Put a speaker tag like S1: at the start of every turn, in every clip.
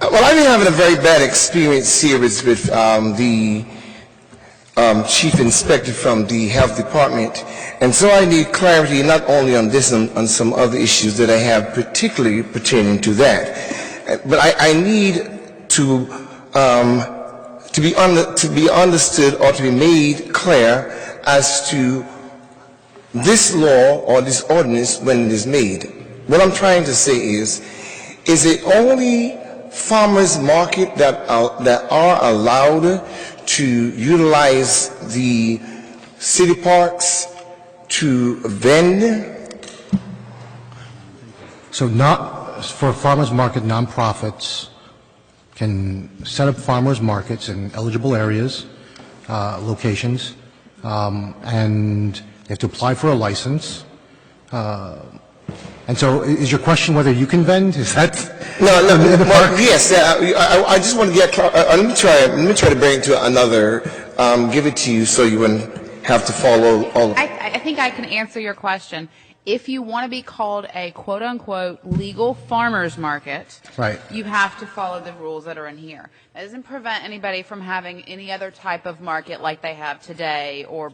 S1: Well, I've been having a very bad experience here with, with um, the um, chief inspector from the health department, and so I need clarity not only on this and on some other issues that I have, particularly pertaining to that. Uh, But I, I need to um, to be un- to be understood or to be made clear as to this law or this ordinance when it is made. What I'm trying to say is, is it only farmers market that are, that are allowed to utilize the city parks to vend?
S2: So not, for farmers market, nonprofits can set up farmers markets in eligible areas, uh, locations, um, and they have to apply for a license. Uh, And so i- is your question whether you can vend? Is that?
S1: No, no,
S2: In the
S1: well,
S2: park?
S1: yes, uh, I, I- I just want to get, clar- uh, uh, let me try, let me try to bring it to another, um, give it to you so you wouldn't have to follow all of
S3: I, I think I can answer your question. If you want to be called a quote unquote legal farmer's market,
S2: Right.
S3: you have to follow the rules that are in here. That doesn't prevent anybody from having any other type of market like they have today or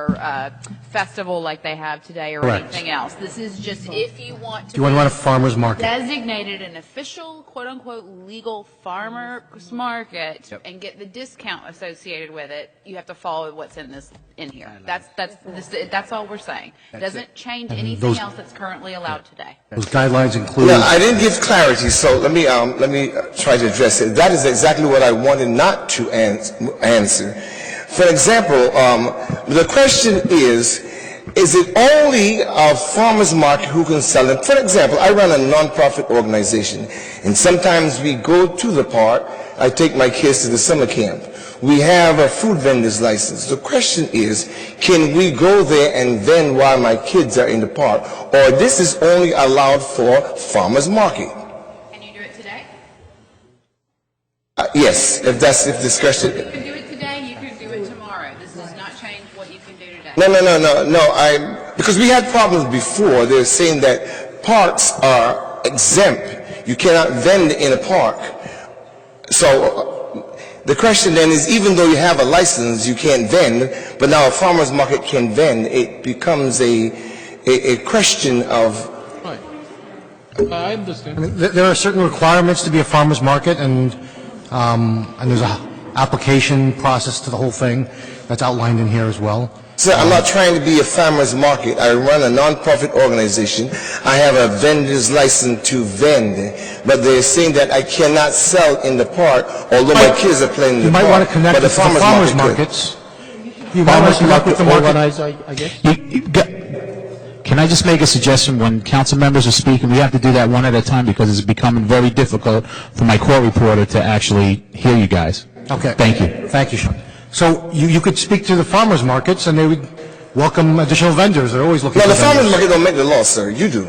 S3: or uh, festival like they have today or
S2: Correct.
S3: anything else. This is just if you want to
S2: You want to
S3: be
S2: run a farmers market?
S3: designated an official quote unquote legal farmer's market and get the discount associated with it, you have to follow what's in this in here. That's that's this, that's all we're saying. Doesn't change anything
S2: those-
S3: else that's currently allowed today.
S2: Those guidelines include?
S1: No, I didn't give clarity, so let me, um, let me uh, try to address it. That is exactly what I wanted not to ans- answer. For example, um, the question is, is it only a farmer's market who can sell them? For example, I run a nonprofit organization, and sometimes we go to the park, I take my kids to the summer camp. We have a food vendor's license. The question is, can we go there and vend while my kids are in the park? Or this is only allowed for farmer's market?
S3: Can you do it today?
S1: Uh, yes, if that's, if discretion,
S3: You can do it today, you can do it tomorrow. This does not change what you can do today.
S1: no, no, no, no, no, I, because we had problems before. They're saying that parks are exempt. You cannot vend in a park. So uh, the question then is, even though you have a license, you can't vend, but now a farmer's market can vend, it becomes a, a, a question of
S4: Right. I understand.
S2: Th- There are certain requirements to be a farmer's market, and, um, and there's a application process to the whole thing that's outlined in here as well.
S1: Sir, I'm not trying to be a farmer's market. I run a nonprofit organization. I have a vendor's license to vend, but they're saying that I cannot sell in the park, although my kids are playing in
S2: You
S1: the park.
S2: might want to connect
S1: but
S2: it to the farmer's markets. You might want to connect with the market.
S5: You- you got- Can I just make a suggestion? When council members are speaking, we have to do that one at a time because it's becoming very difficult for my court reporter to actually hear you guys.
S2: Okay.
S5: Thank you.
S2: Thank you, Sean. So you, you could speak to the farmer's markets, and they would welcome additional vendors. They're always looking
S1: No,
S2: for
S1: the farmer's
S2: vendors.
S1: market don't make the law, sir. You do.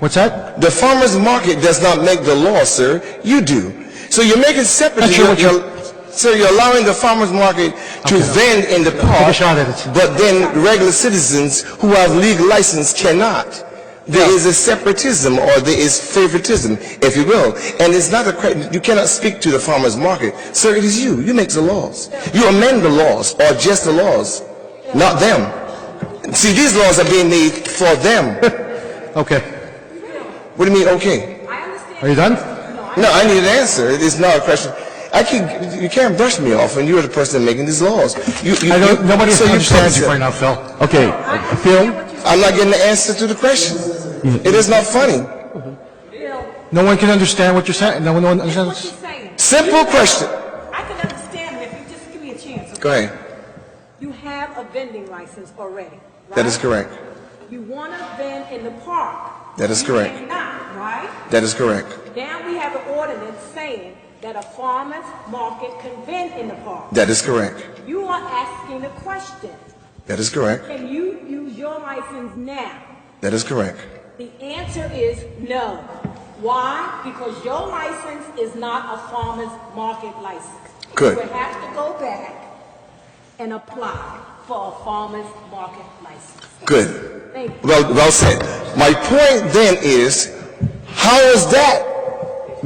S2: What's that?
S1: The farmer's market does not make the law, sir. You do. So you're making separate.
S2: Not sure what
S1: you're- you're- Sir, you're allowing the farmer's market to vend in the park.
S2: shot at it.
S1: But then regular citizens who have legal license cannot. There is a separatism or there is favoritism, if you will. And it's not a, cre- you cannot speak to the farmer's market. Sir, it is you. You make the laws. You amend the laws or just the laws, not them. See, these laws are being made for them.
S2: Okay.
S1: What do you mean, okay?
S2: Are you done?
S1: No, I need an answer. It is not a question. I can you can't brush me off, and you're the person making these laws. You, you,
S2: I don't,
S1: you-
S2: nobody
S1: so
S2: understands you
S1: you
S2: right now, Phil.
S5: Okay, Phil?
S1: I'm not getting the answer to the question.
S2: Mm-hmm.
S1: It is not funny.
S2: No one can understand what you're saying. No one no one
S6: What you
S2: understands.
S6: saying?
S1: Simple question.
S6: I can understand it if you just give me a chance.
S1: Go ahead.
S6: You have a vending license already, right?
S1: That is correct.
S6: You want to vend in the park.
S1: That is
S6: You
S1: correct.
S6: cannot, right?
S1: That is correct.
S6: Now we have an ordinance saying that a farmer's market can vend in the park.
S1: That is correct.
S6: You are asking the question,
S1: That is correct.
S6: can you use your license now?
S1: That is correct.
S6: The answer is no. Why? Because your license is not a farmer's market license.
S1: Good.
S6: You would have to go back and apply for a farmer's market license.
S1: Good.
S6: Thank you.
S1: Well, well said. My point then is, how is that